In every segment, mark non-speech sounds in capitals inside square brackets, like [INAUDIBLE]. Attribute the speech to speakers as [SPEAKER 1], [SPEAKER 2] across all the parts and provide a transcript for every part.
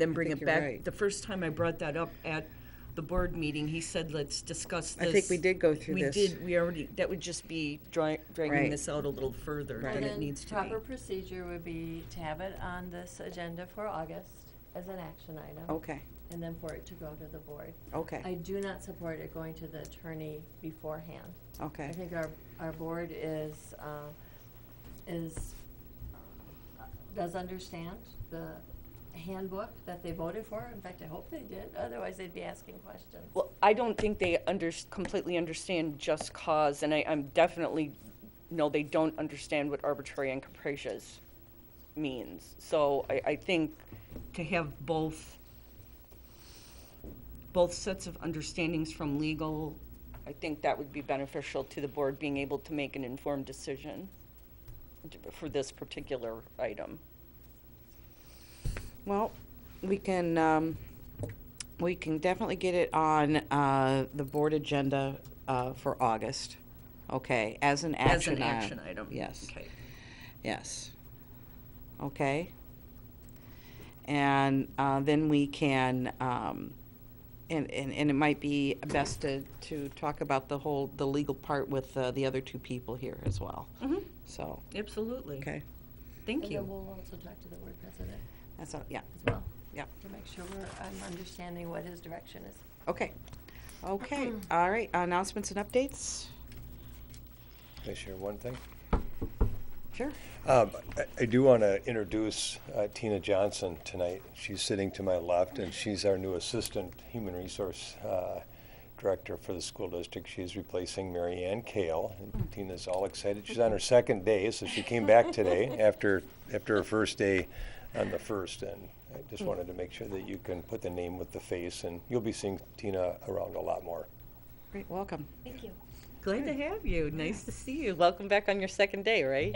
[SPEAKER 1] then bring it
[SPEAKER 2] think you're
[SPEAKER 1] back.
[SPEAKER 2] right.
[SPEAKER 1] The first time I brought that up at the board meeting, he said, let's discuss
[SPEAKER 2] I
[SPEAKER 1] this.
[SPEAKER 2] think we did go through this.
[SPEAKER 1] We did, we already, that would just be dra- dragging
[SPEAKER 2] Right.
[SPEAKER 1] this out a little further
[SPEAKER 2] Right.
[SPEAKER 1] than it
[SPEAKER 3] Then
[SPEAKER 1] needs to
[SPEAKER 3] Proper
[SPEAKER 1] be.
[SPEAKER 3] procedure would be to have it on this agenda for August as an action item.
[SPEAKER 2] Okay,
[SPEAKER 3] And then for it to go to the board. I
[SPEAKER 2] okay,
[SPEAKER 3] do not support it going to the attorney beforehand. I
[SPEAKER 2] okay.
[SPEAKER 3] think our, our board is, uh, is, uh, does understand the handbook that they voted for. In fact, I hope they did, otherwise they'd be asking questions.
[SPEAKER 4] Well, I don't think they under, completely understand just cause, and I, I'm definitely, no, they don't understand what arbitrary and capricious means. So I, I think
[SPEAKER 1] To have both, both sets of understandings from legal,
[SPEAKER 4] I think that would be beneficial to the board being able to make an informed decision d- for this particular item.
[SPEAKER 2] Well, we can, um, we can definitely get it on, uh, the board agenda, uh, for August. Okay, as an
[SPEAKER 1] as
[SPEAKER 2] action
[SPEAKER 1] an
[SPEAKER 2] item.
[SPEAKER 1] action item.
[SPEAKER 2] Yes,
[SPEAKER 1] Okay.
[SPEAKER 2] yes. Okay? And, uh, then we can, um, and, and, and it might be best to, to talk about the whole, the legal part with, uh, the other two people here as well.
[SPEAKER 4] Mm-hmm.
[SPEAKER 1] Mhm.
[SPEAKER 2] So,
[SPEAKER 1] Absolutely.
[SPEAKER 2] okay,
[SPEAKER 1] Thank
[SPEAKER 3] And then
[SPEAKER 1] you.
[SPEAKER 3] we'll also talk to the board president
[SPEAKER 2] that's all, yeah.
[SPEAKER 3] as well.
[SPEAKER 2] Yeah.
[SPEAKER 3] To make sure we're, I'm understanding what his direction is.
[SPEAKER 2] Okay.
[SPEAKER 1] [CLEARS THROAT]
[SPEAKER 2] Okay, all right, announcements and updates?
[SPEAKER 5] Can I share one thing?
[SPEAKER 2] Sure.
[SPEAKER 5] Um, I- I do want to introduce uh, Tina Johnson tonight. She's sitting to my left, and she's our new Assistant Human Resource uh, Director for the school district. She is replacing Mary Ann Kale. And Tina's all excited. She's on her second day, so she came back today after, after her first day on the first. And I just wanted to make sure that you can put the name with the face, and you'll be seeing Tina around a lot more.
[SPEAKER 2] Great, welcome.
[SPEAKER 3] Thank you.
[SPEAKER 1] Glad to have you. Nice to see you.
[SPEAKER 4] Welcome back on your second day, right?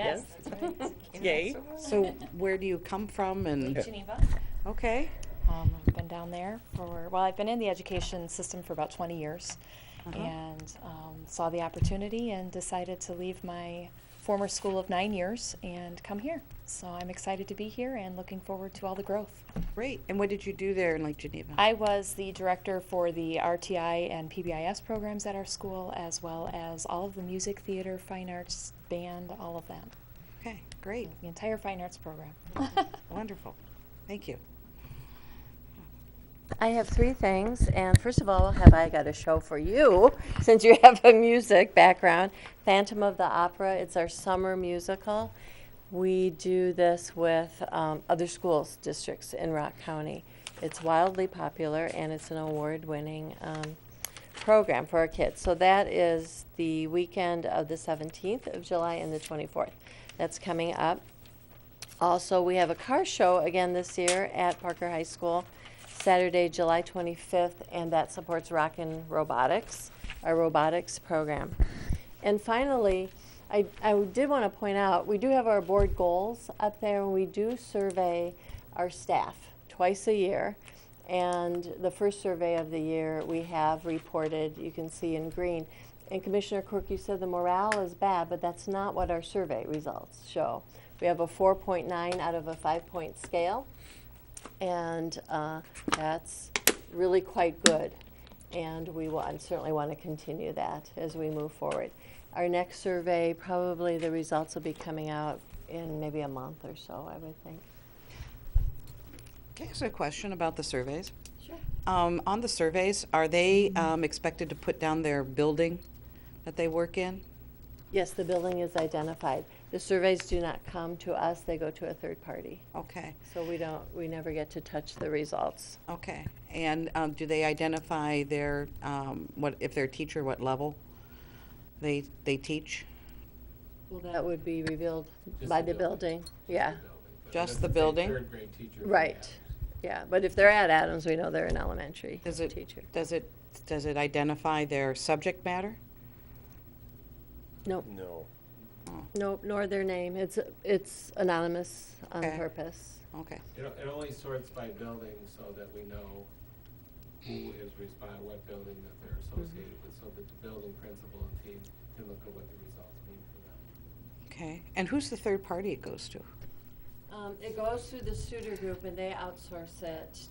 [SPEAKER 4] Yay.
[SPEAKER 2] So where do you come from and,
[SPEAKER 6] Geneva.
[SPEAKER 2] okay,
[SPEAKER 6] Um, I've been down there for, well, I've been in the education system for about 20 years
[SPEAKER 2] Uh-huh.
[SPEAKER 6] and um, saw the opportunity and decided to leave my former school of nine years and come here. So I'm excited to be here and looking forward to all the growth.
[SPEAKER 2] great. And what did you do there in Lake Geneva?
[SPEAKER 6] I was the director for the RTI and PBIS programs at our school, as well as all of the music, theater, fine arts, band, all of that.
[SPEAKER 2] Okay, great,
[SPEAKER 6] The entire fine arts program.
[SPEAKER 2] [LAUGHS] wonderful. Thank you.
[SPEAKER 3] I have three things, and first of all, have I got a show for you, [LAUGHS] since you have a music background. Phantom of the Opera, it's our summer musical. We do this with um, other schools, districts in Rock County. It's wildly popular, and it's an award-winning um, program for our kids. So that is the weekend of the 17th of July and the 24th. That's coming up. Also, we have a car show again this year at Parker High School, Saturday, July 25th, and that supports Rockin' Robotics, our robotics program. And finally, I, I did want to point out, we do have our board goals up there, and we do survey our staff twice a year. And the first survey of the year, we have reported, you can see in green. And Commissioner Quirk, you said the morale is bad, but that's not what our survey results show. We have a 4.9 out of a five-point scale, and uh, that's really quite good. And we will, I certainly want to continue that as we move forward. Our next survey, probably the results will be coming out in maybe a month or so, I would think.
[SPEAKER 2] Can I ask a question about the surveys?
[SPEAKER 3] Sure.
[SPEAKER 2] Um, on the surveys, are they, um, expected to put down their building that they work in?
[SPEAKER 3] Yes, the building is identified. The surveys do not come to us, they go to a third party.
[SPEAKER 2] Okay,
[SPEAKER 3] So we don't, we never get to touch the results.
[SPEAKER 2] okay. And, um, do they identify their, um, what, if they're a teacher, what level they, they teach?
[SPEAKER 3] Well, that would be revealed
[SPEAKER 7] Just
[SPEAKER 3] by
[SPEAKER 7] the
[SPEAKER 3] the building, yeah,
[SPEAKER 2] Just
[SPEAKER 7] That's
[SPEAKER 2] the
[SPEAKER 7] same
[SPEAKER 2] building?
[SPEAKER 7] Third grade teacher. we
[SPEAKER 3] right.
[SPEAKER 7] have.
[SPEAKER 3] Yeah, but if they're at Adams, we know they're an elementary
[SPEAKER 2] Does it,
[SPEAKER 3] teacher.
[SPEAKER 2] does it, does it identify their subject matter?
[SPEAKER 3] Nope,
[SPEAKER 5] No.
[SPEAKER 2] Oh,
[SPEAKER 3] nope, nor their name. It's, it's anonymous on
[SPEAKER 2] Okay.
[SPEAKER 3] purpose.
[SPEAKER 2] Okay,
[SPEAKER 7] It, it only sorts by building so that we know who is respon what building that they're associated
[SPEAKER 3] Mm-hmm.
[SPEAKER 7] with, so that the building principal and team can look at what the results mean for them.
[SPEAKER 2] okay. And who's the third party it goes to?
[SPEAKER 3] Um, it goes through the Suter Group and they outsource it